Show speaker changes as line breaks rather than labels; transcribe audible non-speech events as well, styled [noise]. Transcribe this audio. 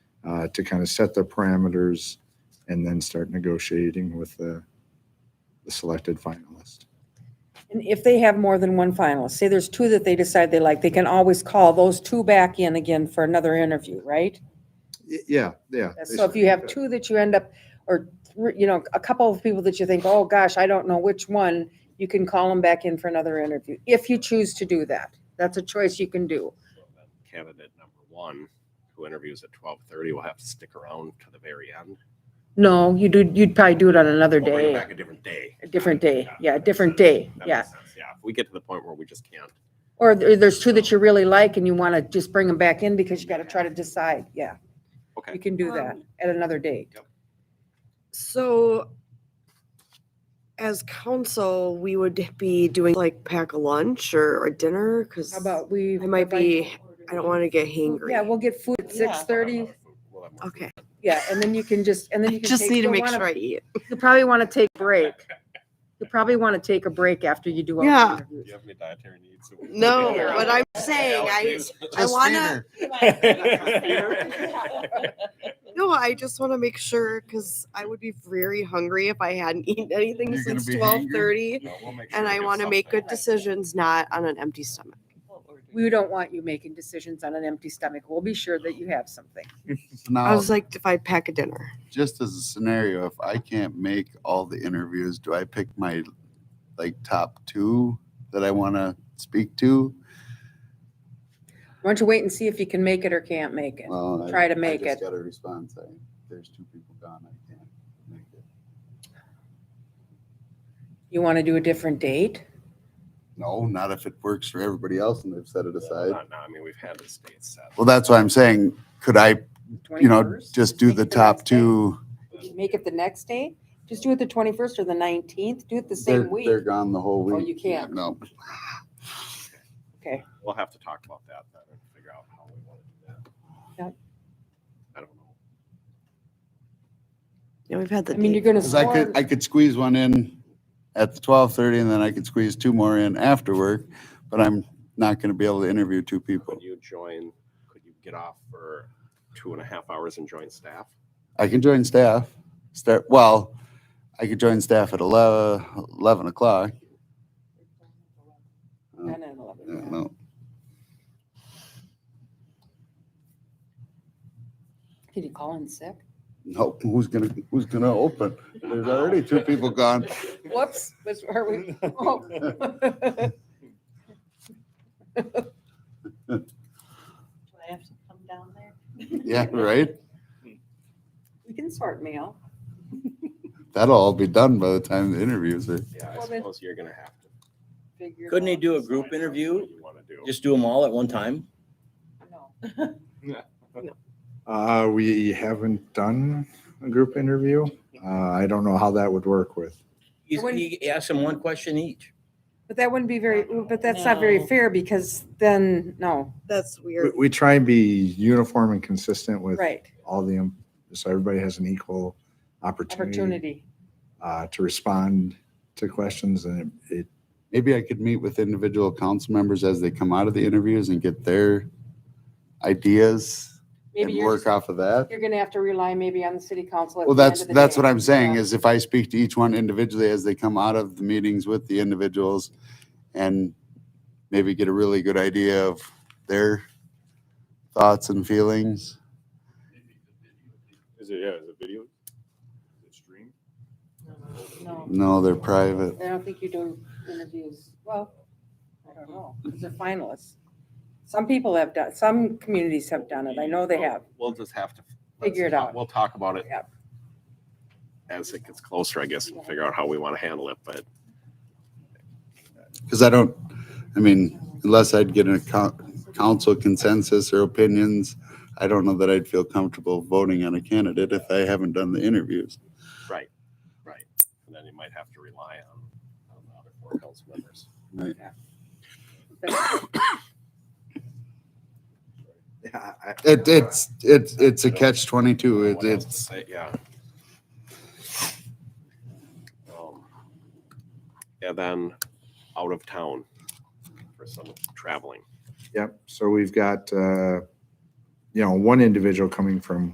uh, to kind of set the parameters and then start negotiating with the, the selected finalist.
And if they have more than one finalist, say there's two that they decide they like, they can always call those two back in again for another interview, right?
Y- Yeah, yeah. they
So if you
certainly
have
could.
two that you end up, or, thr- you know, a couple of people that you think, oh, gosh, I don't know which one, you can call them back in for another interview, if you choose to do that. That's a choice you can do.
Candidate number one, who interviews at twelve thirty, will have to stick around to the very end.
No, you do, you'd probably do it on another
We'll bring it
day,
Back a different day.
a different day, yeah, a different day,
That
yeah.
makes sense. Yeah, if we get to the point where we just can't.
Or there- there's two that you really like and you want to just bring them back in because you got to try to decide, yeah.
Okay.
You can do that
Um,
at another date.
So as council, we would be doing like pack a lunch or a dinner because
How
I
about we?
might be, I don't want to get hangry.
Yeah, we'll get food at six thirty,
We'll have more-
Okay,
yeah, and then you can just, and then you can.
just
take-
need to
you'll
make
wanna-
sure I eat.
You probably want to take a break. You probably want to take a break after you do all
Yeah.
the
Do you
interviews.
have any dietary needs? that we can
No,
take care of?
but I'm saying I, I want to,
[laughs]
no, I just want to make sure because I would be very hungry if I hadn't [laughs] eaten anything
You're gonna
since
be
twelve
hangry?
thirty.
No, we'll make sure
And
we
I
do
want to make
something.
good decisions, not on an empty stomach.
We don't want you making decisions on an empty stomach. We'll be sure that you have something.
I
Now,
was like, if I pack a dinner,
just as a scenario, if I can't make all the interviews, do I pick my like top two that I want to speak to?
Why don't you wait and see if you can make it or can't make it?
Well, I-
Try to
I
make
just
it.
Got a response. I, there's two people gone. I can't make it.
You want to do a different date?
No, not if it works for everybody else and they've set it aside.
Not now, I mean, we've had this date set.
Well, that's why I'm saying, could I, you know,
21st?
just do
Make
the
it
top
next day.
two?
Make it the next day? Just do it the twenty-first or the nineteenth? Do it the
They're,
same week?
they're gone the whole
Oh,
week.
you can't.
No.
Okay,
We'll have to talk about that then and figure out how we want to do that.
Yep.
I don't know.
you know, we've had the
I mean, you're
date.
gonna
Cause I
score.
could, I could squeeze one in at the twelve thirty and then I could squeeze two more in after work, but I'm not gonna be able to interview two people.
Could you join, could you get off for two and a half hours and join staff?
I can join staff, start, well, I could join staff at eleven, eleven o'clock.
Ten and eleven,
I don't
yeah.
know.
Did you call in sick?
No, who's gonna, who's gonna open? There's already two people gone.
Whoops, was, are [laughs] we? oh.
Do I have to come down there?
Yeah, right?
We can sort mail.
That'll all be done by the time the interviews are.
Yeah, I
Well, then-
suppose you're gonna have to.
figure it
Couldn't they
out.
do a group
decide
interview?
What you wanna do.
Just do them all at one time?
No.
Uh, we haven't done a group interview. Uh, I don't know how that would work with.
You
wouldn't-
you ask them one question each.
But that wouldn't be very, but that's not very
No.
fair because then, no,
That's
We,
weird.
we try and be uniform and consistent with
right,
all the, em- so everybody has an equal opportunity
opportunity.
uh, to respond to questions and it, it-
Maybe I could meet with individual council members as they come out of the interviews and get their ideas and
Maybe you're,
work
just-
off of that.
you're gonna have to rely maybe on the city council. at
Well,
the end
that's,
of the
that's
day.
what I'm saying
Yeah.
is if I speak to each one individually as they come out of the meetings with the individuals and maybe get a really good idea of their thoughts and feelings.
Is it, yeah, is it video? Is it streamed?
No,
No, they're private.
I don't think you do interviews. Well, I don't know, because they're finalists. Some people have done, some communities have done it. I know they have.
We'll just have to. let's
Figure it
talk-
out.
We'll talk about it.
Yep.
As it gets closer, I guess, and figure out how we wanna handle it, but
Because I don't, I mean, unless I'd get a coun- council consensus or opinions, I don't know that I'd feel comfortable voting on a candidate if I haven't done the interviews.
Right. And then you might have to rely on, on the other four council members.
yeah, I-
It, it's, it's, it's a catch twenty-two. It-
What else to
It's,
say? Yeah. Um, And then out of town for some traveling.
Yep, so we've got, uh, you know, one individual coming from